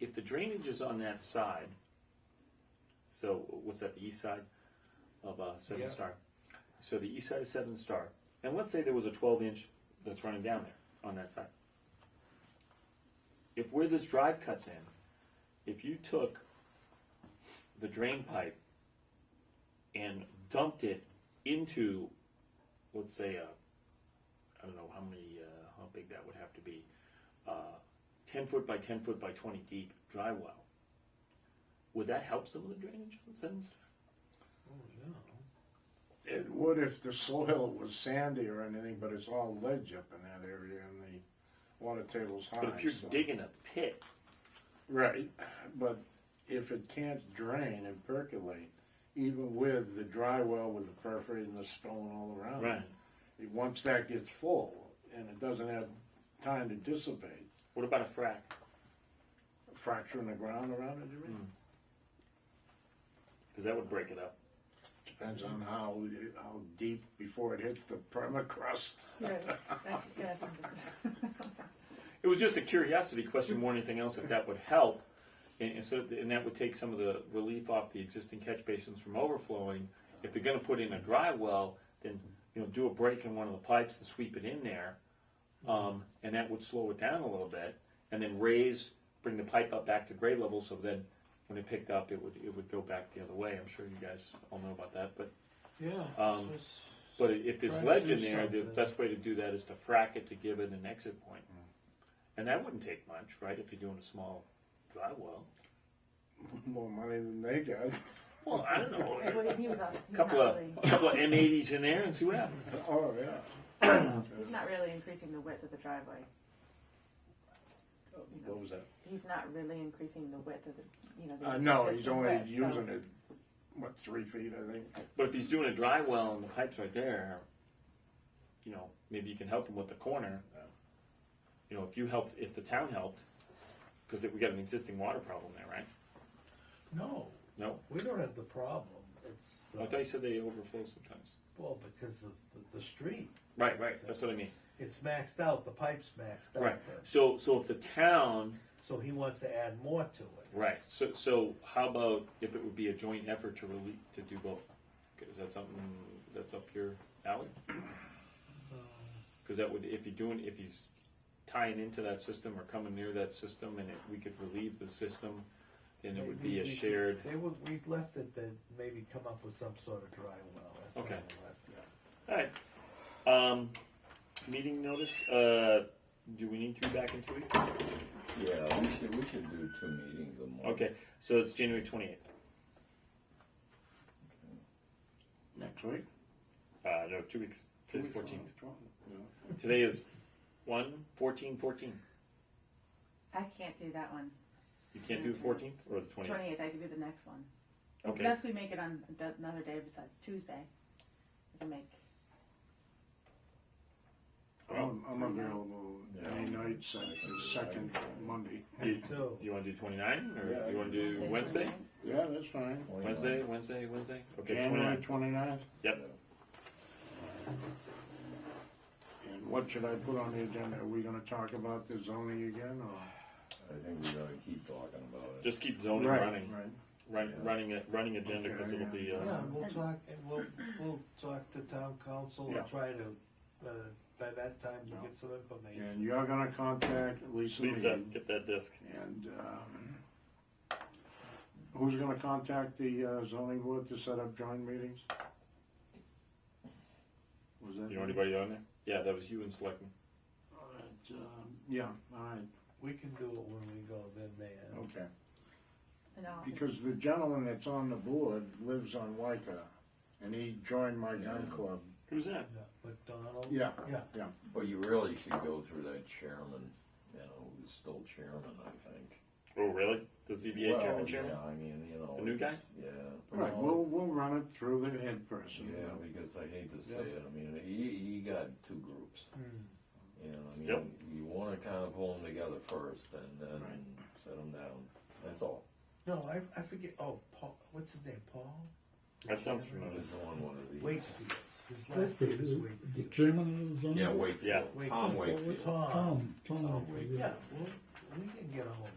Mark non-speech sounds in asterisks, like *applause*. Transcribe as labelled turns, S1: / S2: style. S1: if the drainage is on that side, so what's that, the east side of uh, Seven
S2: Yeah.
S1: Star? So the east side of Seven Star, and let's say there was a 12 inch that's running down there on that side. If where this drive cuts in, if you took the drain pipe and dumped it into, let's say, a, I don't know how many, uh, how big that would have to be, uh, 10 foot by 10 foot by 20 deep dry well. Would that help some of the drainage on Seven Star?
S2: Oh, no.
S3: It would if the soil was sandy or anything, but it's all ledge up in that area and the water table's high.
S1: But if you're
S3: so-
S1: digging a pit,
S3: Right, but if it can't drain and percolate, even with the dry well with the perforating the stone all around. it,
S1: Right.
S3: it- Once that gets full and it doesn't have time to dissipate,
S1: what about a frac?
S3: fracturing the ground around it, you
S1: Hmm.
S3: mean?
S1: Because that would break it up.
S3: Depends on how, how deep before it hits the *laughs* permacrust. *laughs*
S4: Right, that, yes, I'm just,
S1: It was just a curiosity question more than anything else if that would help. And, and, so, and that would take some of the relief off the existing catch basins from overflowing. If they're going to put in a dry well, then you know do a break in one of the pipes and sweep it in there, um, and that would slow it down a little bit. And then raise, bring the pipe up back to grade level, so then when it picked up, it would it would go back the other way. I'm sure you guys all know about that, but
S2: Yeah.
S1: Um,
S2: so it's-
S1: but if there's
S2: Try to
S1: ledge
S2: do
S1: in there, the
S2: something.
S1: best way to do that is to frack it to give it an exit point. And that wouldn't take much, right, if you're doing a small dry well.
S3: More money than they got.
S1: Well, I don't know,
S4: like, what he was us,
S1: a *laughs*
S4: he's not
S1: couple of,
S4: really,
S1: couple of M80s in there and see what happens.
S3: *laughs* Oh, yeah.
S4: he's not really increasing the width of the driveway. You know,
S3: What was that?
S4: He's not really increasing the width of the, you know, the
S3: Uh, no, he's
S4: existing
S3: only
S4: width, so-
S3: using it, what, three feet, I think?
S1: But if he's doing a dry well and the pipe's right there, you know, maybe you can help him with the corner. You know, if you helped, if the town helped, because we got an existing water problem there, right?
S2: No,
S1: No?
S2: we don't have the problem. It's
S1: I thought
S2: the,
S1: you said they overflow sometimes.
S2: well, because of the, the street.
S1: Right, right, that's what I mean.
S2: It's maxed out, the pipe's maxed out.
S1: Right,
S2: there.
S1: so, so if the town
S2: So he wants to add more to it.
S1: Right. So, so how about if it would be a joint effort to really, to do both? Is that something that's up your alley? Because that would, if you're doing, if he's tying into that system or coming near that system and it- we could relieve the system, then it would be
S2: Maybe
S1: a
S2: we could-
S1: shared,
S2: They would, we left it that maybe come up with some sort of dry well. That's all
S1: Okay.
S2: we left it.
S1: alright. Um, meeting notice, uh, do we need to be back in two weeks?
S5: Yeah, we should, we should do two meetings a month.
S1: Okay, so it's January twenty-eighth.
S3: Next week?
S1: Uh, no, two weeks. Today's
S3: Two weeks,
S1: fourteen.
S3: twelve, twelve, yeah.
S1: Today is one, fourteen, fourteen.
S4: I can't do that one.
S1: You can't do the fourteenth or the twentieth?
S4: Twenty-eighth, I can do the next one.
S1: Okay,
S4: Unless we make it on a d- another day besides Tuesday. We can make,
S3: I'm, I'm available any night, second, second Monday.
S1: you,
S2: So,
S1: you wanna do twenty-nine,
S3: Yeah,
S1: or you wanna do
S4: Wednesday,
S1: Wednesday?
S4: 29th.
S3: Yeah, that's fine.
S5: Why not?
S1: Wednesday, Wednesday, Wednesday? Okay,
S3: January
S1: twenty-nine,
S3: twenty-ninth,
S1: yep,
S3: and what should I put on the agenda? Are we gonna talk about the zoning again, or?
S5: I think we gotta keep talking about it.
S1: just keep zoning
S3: Right,
S1: running,
S3: Right,
S1: run, running it, running agenda,
S3: Okay,
S1: cause it'll be,
S2: yeah,
S1: uh,
S2: and we'll talk, and we'll, we'll talk to town council
S3: Yeah.
S2: and try to, uh, by that time, we'll
S3: No.
S2: get some information.
S3: and you're gonna contact Lisa
S1: Lisa,
S3: Mead,
S1: get that disc.
S3: and, um, who's gonna contact the uh, zoning board to set up joint meetings? Was that?
S1: You know anybody on there? Yeah, that was you and Selectman.
S3: All right, um, Yeah, all right,
S2: We can do it when we go then there.
S3: okay.
S4: and I'll-
S3: Because the gentleman that's on the board lives on Waika, and he joined my gun
S5: Yeah.
S3: club.
S1: Who's that?
S2: Yeah, McDonald?
S3: Yeah.
S2: Yeah,
S5: But you really should go through that chairman, you know, who's still chairman, I think.
S1: Oh, really? The ZBA chairman,
S5: Well,
S1: chairman?
S5: Yeah, I mean, you know.
S1: The new
S5: it's-
S1: guy?
S5: Yeah.
S3: Right,
S5: Well,
S3: we'll, we'll run it through the head person.
S5: Yeah, because I hate to say
S3: Yeah.
S5: it, I mean, he, he got two groups.
S2: Hmm.
S5: And I
S1: Still.
S5: mean, you wanna kinda pull them together first and then
S3: Right.
S5: set them down, that's all.
S2: No, I, I forget, oh, Paul, what's his name, Paul?
S1: That sounds familiar.
S5: This is on one of these.
S2: Wakefield, his
S6: That's
S2: last
S6: the,
S2: name is
S6: the
S2: Wakefield.
S6: chairman of the
S5: Yeah,
S6: zone?
S5: Wakefield,
S1: Yeah.
S5: Tom Wakefield.
S2: Tom,
S6: Tom, Tom
S5: Tom
S6: Wakefield.
S5: Wakefield.
S2: yeah, well, we can get a hold of